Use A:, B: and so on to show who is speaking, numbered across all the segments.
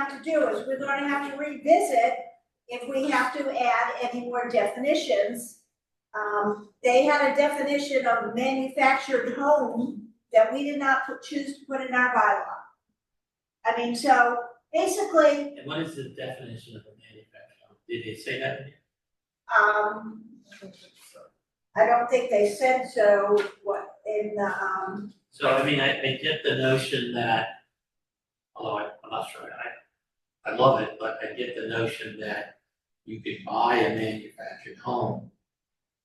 A: have to do is we're gonna have to revisit if we have to add any more definitions. Um, they had a definition of manufactured home that we did not put- choose to put in our bylaw. I mean, so basically,
B: And what is the definition of a manufacturer? Did they say that?
A: Um, I don't think they said so, what, in the, um,
B: So I mean, I, I get the notion that, although I- I'm not sure, I, I love it, but I get the notion that you could buy a manufactured home,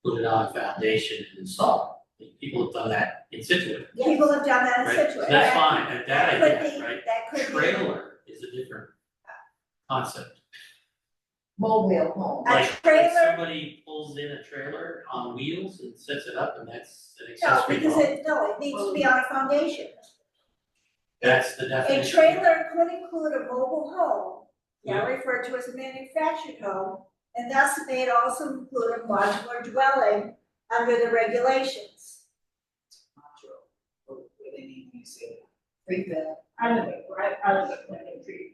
B: put it on a foundation and install it. People have done that in Situate,
A: people have done that in
B: right? So
A: Situate.
B: That's fine, and that I
A: That could
B: get,
A: be-
B: right?
A: That could be.
B: Trailer is a different concept.
C: mobile home.
A: A
B: Like, if
A: trailer-
B: somebody pulls in a trailer on wheels and sets it up and that's an
A: No,
B: accessory
A: because
B: home,
A: it, no, it needs to be on a foundation.
B: that's the
A: A
B: definition.
A: trailer could include a mobile home, now referred to as a manufactured home, and thus may also include a modular dwelling under the regulations.
D: module, or what they need to use it.
C: Rebuild.
E: I don't think, right, I don't think we're gonna agree.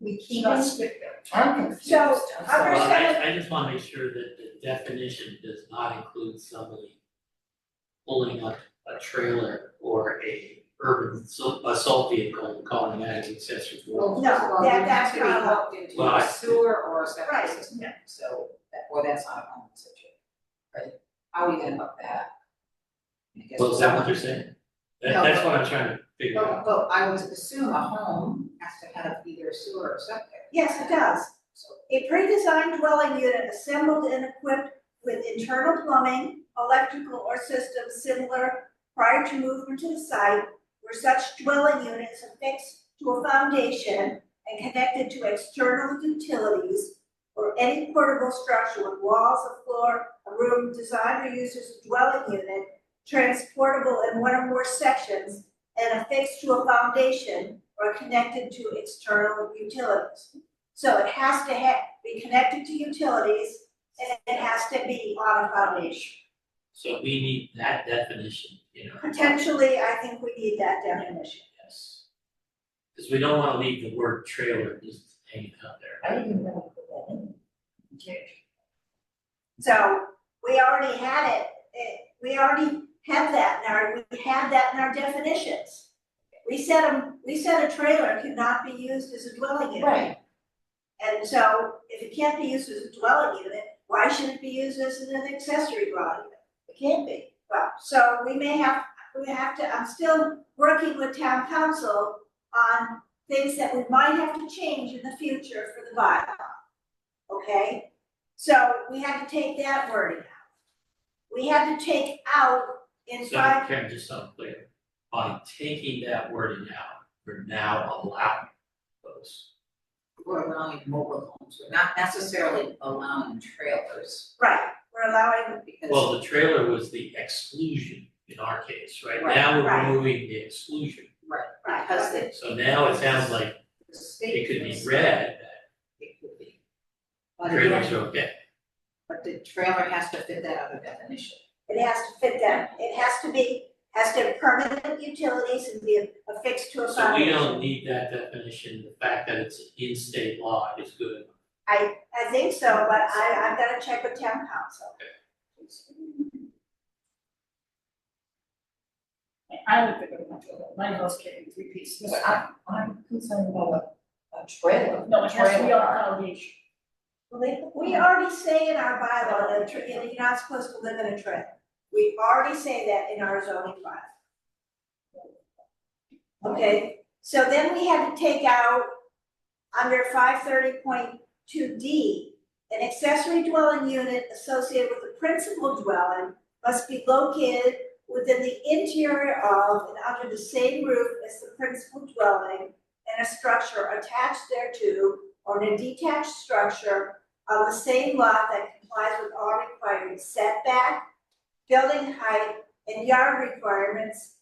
C: We keep
E: Not
C: us,
E: strict
C: I'm confused.
A: So,
C: I'm sorry.
A: other
B: Well,
A: side-
B: I, I just wanna make sure that the definition does not include somebody pulling up a trailer or a urban assault, assault vehicle and calling that an accessory dwelling.
D: Well,
A: No,
D: first of all,
A: that-
D: you need
A: that's
D: to
A: not
D: be
A: allowed.
D: hooked into
B: Well, I-
D: a sewer or a septic
A: Right,
D: system,
E: yeah.
D: so, that- or that's not a home situation, right? How are you gonna hook that? up? I guess-
B: Well, is that what they're saying? That-
D: No.
B: that's what I'm trying to figure
D: Well,
B: out.
D: well, I would assume a home has to have either sewer or septic.
A: Yes, it does.
D: So,
A: A pre-designed dwelling unit assembled and equipped with internal plumbing, electrical or systems similar prior to movement to the site where such dwelling unit is affixed to a foundation and connected to external utilities or any portable structure with walls, a floor, a room designed or used as a dwelling unit, transportable in one or more sections and affixed to a foundation or connected to external utilities. So it has to ha- be connected to utilities and it has to be on a foundation.
B: So we need that definition, you know,
A: Potentially, I think we need that definition.
B: yes. Cause we don't wanna leave the word trailer just hanging out there.
C: I didn't know what that meant.
A: So we already had it, it, we already had that in our, we had that in our definitions. We said, a- we said a trailer cannot be used as a dwelling unit.
C: Right,
A: And so if it can't be used as a dwelling unit, why should it be used as an accessory dwelling unit? It can't be. Well, so we may have, we have to, I'm still working with town council on things that we might have to change in the future for the bylaw. Okay? So we had to take that wording out. We had to take out in
B: So
A: five,
B: Karen, just so I'm clear, by taking that wording out, we're now allowing those.
D: We're allowing mobile homes, we're not necessarily allowing trailers,
A: right, we're allowing,
D: because.
B: Well, the trailer was the exclusion in our case, right?
D: Right,
B: Now we're
A: right.
B: removing the exclusion.
D: Right,
A: Right.
D: because the
B: So now it sounds like
D: the
B: it
D: state.
B: could be
D: is-
B: read
D: It could be.
B: that
D: But
B: trailers
D: again,
B: are okay.
D: but the trailer has to fit that other definition.
A: it has to fit that, it has to be, has to have permanent utilities and be affixed to a
B: So we
A: foundation.
B: don't need that definition. The fact that it's in state law is good enough.
A: I think so, but I, I've gotta check with town council.
E: I don't think we're gonna do that, my house came in three pieces.
C: but I, I'm concerned about a, a trailer.
E: No, it has to be on a
C: Trailer.
E: foundation.
A: Well, they- We already say in our bylaw that a tra- you know, you're not supposed to live in a trailer. We already say that in our zoning bylaw. Okay, so then we had to take out under five thirty point two D, an accessory dwelling unit associated with the principal dwelling must be located within the interior of and under the same roof as the principal dwelling and a structure attached thereto or in a detached structure on the same lot that complies with all required setback, building height, and yard requirements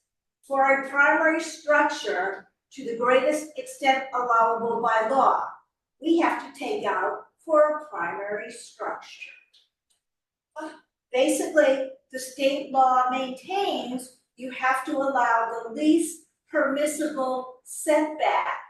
A: for a primary structure to the greatest extent allowable by law. We have to take out for a primary structure. Basically, the state law maintains you have to allow the least permissible setback